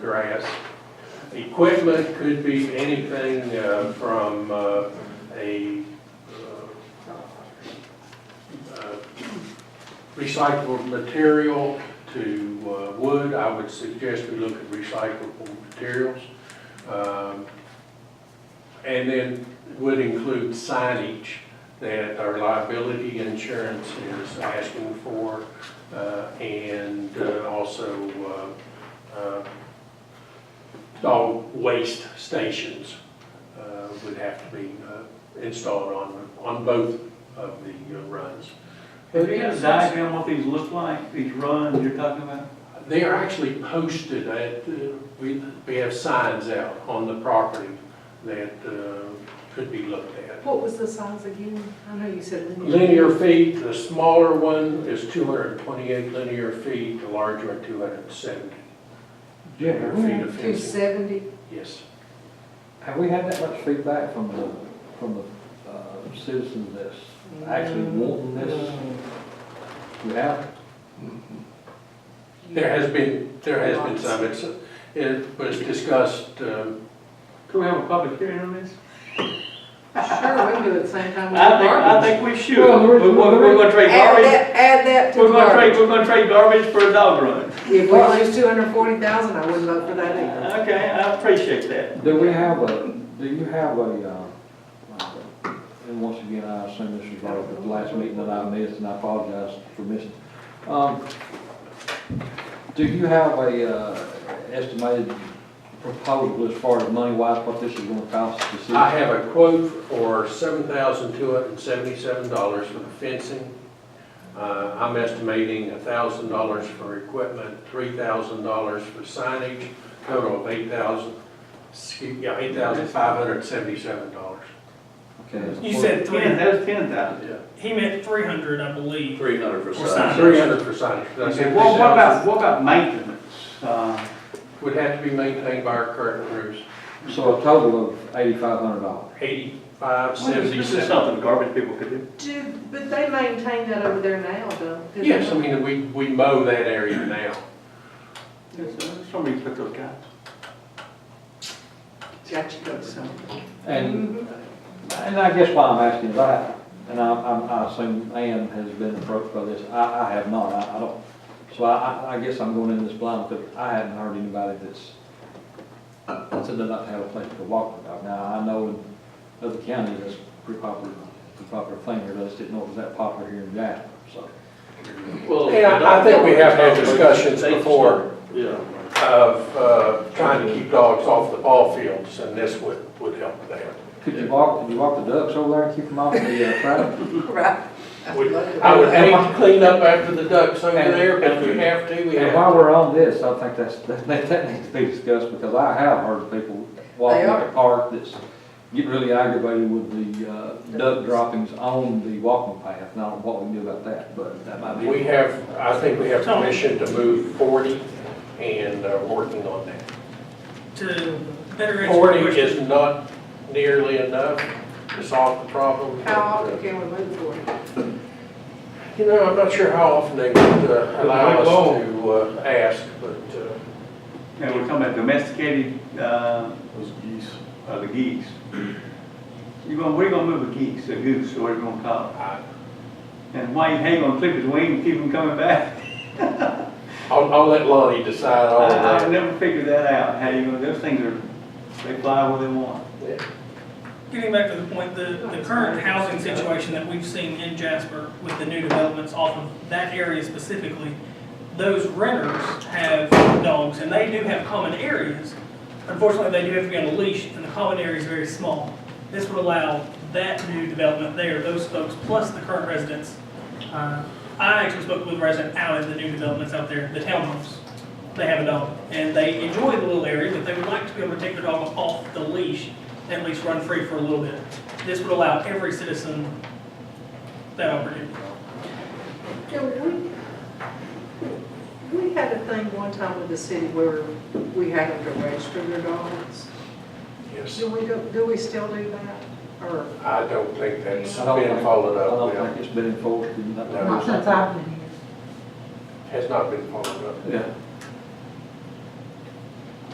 grass. Equipment could be anything uh, from uh, a uh, uh, recyclable material to uh, wood. I would suggest we look at recyclable materials. Um, And then would include signage that our liability insurance is asking for uh, and uh, also uh, uh, dog waste stations uh, would have to be uh, installed on, on both of the uh, runs. Have you got a diagram what these look like, these runs you're talking about? They are actually posted at, uh, we, we have signs out on the property that uh, could be looked at. What was the size again? I know you said linear. Linear feet, the smaller one is 228 linear feet, the larger one 270 linear feet of Two fencing. seventy, Yes. Have we had that much feedback from the, from the uh, citizens that's actually wanting this? We have, There has been, there has been some, it's, it was discussed um, Can we have a public hearing on this? sure, we can do it same time. with I think, I garbage. think we should. Well, We're, we're- we're- we're gonna trade Add garbage, that, add that to we're gonna trade, garbage. we're gonna trade garbage for a dog run. If we lose two hundred and forty thousand, I wouldn't vote for that either. Okay, I appreciate that. do we have a, do you have a, uh, like a- and once again, I assume this is like the last meeting that I missed, and I apologize for missing. Um, Do you have a uh, estimated proposal as far as money wise, what this is gonna cost the city? I have a quote for seven thousand two hundred and seventy-seven dollars for the fencing. Uh, I'm estimating thousand dollars for equipment, three thousand dollars for signage, total of eight thousand, yeah, eight thousand five hundred and seventy-seven dollars. Okay. You said Ten, three, that was ten thousand. Yeah. he meant three hundred, I believe. Three hundred for For signage. Three hundred for signage. That's Okay, well, what about, 8,000. what about maintenance? Uh, Would have to be maintained by our current crews, So a total of eighty-five hundred dollars. eighty-five This is seventy-seven. something garbage people could do. Do, but they maintain that over there now, don't they? Yes, I mean, we, we mow that area now. Somebody put those guys. Got you, got some. And And I guess why I'm asking that, and I, I'm- I assume Ann has been approached by this, I, I have not, I, I don't, so I, I- I guess I'm going in this blind, because I haven't heard anybody that's, that's said they don't have a place to walk the dog. Now, I know in other counties, that's pretty popular, pretty popular thing, here, but I just didn't know it was that popular here in Jasper, so. Well, Yeah, I think we have had the discussions dog- before. Yeah. of uh, trying to keep dogs off the ball fields, and this would, would help there. Could you walk, could you walk the ducks over there and keep them off the uh, track? Mm-hmm. Right. Would- I would hate to clean up after the ducks over there, but if we have to, we And have. while we're on this, I think that's, that, that needs to be discussed, because I have heard people walking They in are. the park that's getting really aggravated with the, uh, duck droppings on the walking path, and I don't know what we can do about that, but that might be. We have, I think we have permission to move 40 and uh, working on that. To better answer Forty your is question, not nearly enough to solve the problem. uh, How often can we move for it? You know, I'm not sure how often they would uh, allow us to uh, ask, but uh, And we're talking about domesticated, uh. Those geese. Uh, the geese. You're gonna, we're gonna move a geese, a goose, or whatever you gonna call it. I- And why you hang on clip his wing and keep him coming back? I'll, I'll let Lonnie decide all I, Uh, I've of that. never figured that out, how you gonna, those things are, they fly where they want. Yeah. getting back to the point, the, the current housing situation that we've seen in Jasper with the new developments off of that area specifically, those renters have dogs and they do have common areas. Unfortunately, they do have to be on a leash and the common area is very small. This would allow that new development there, those folks, plus the current residents. Uh, I actually spoke with a resident out in the new developments out there, the townhomes. They have a dog and they enjoy the little area, but they would like to be able to take their dog off the leash at least run free for a little bit. This would allow every citizen that opportunity. Yeah, we, we had a thing one time with the city where we had them to register their dogs. Yes, Do we, go- do we still do that, or? I don't think that's I don't been think- followed I up. don't well. think it's been enforced, and that- No. Not since I've been here. has not been followed up. Yeah,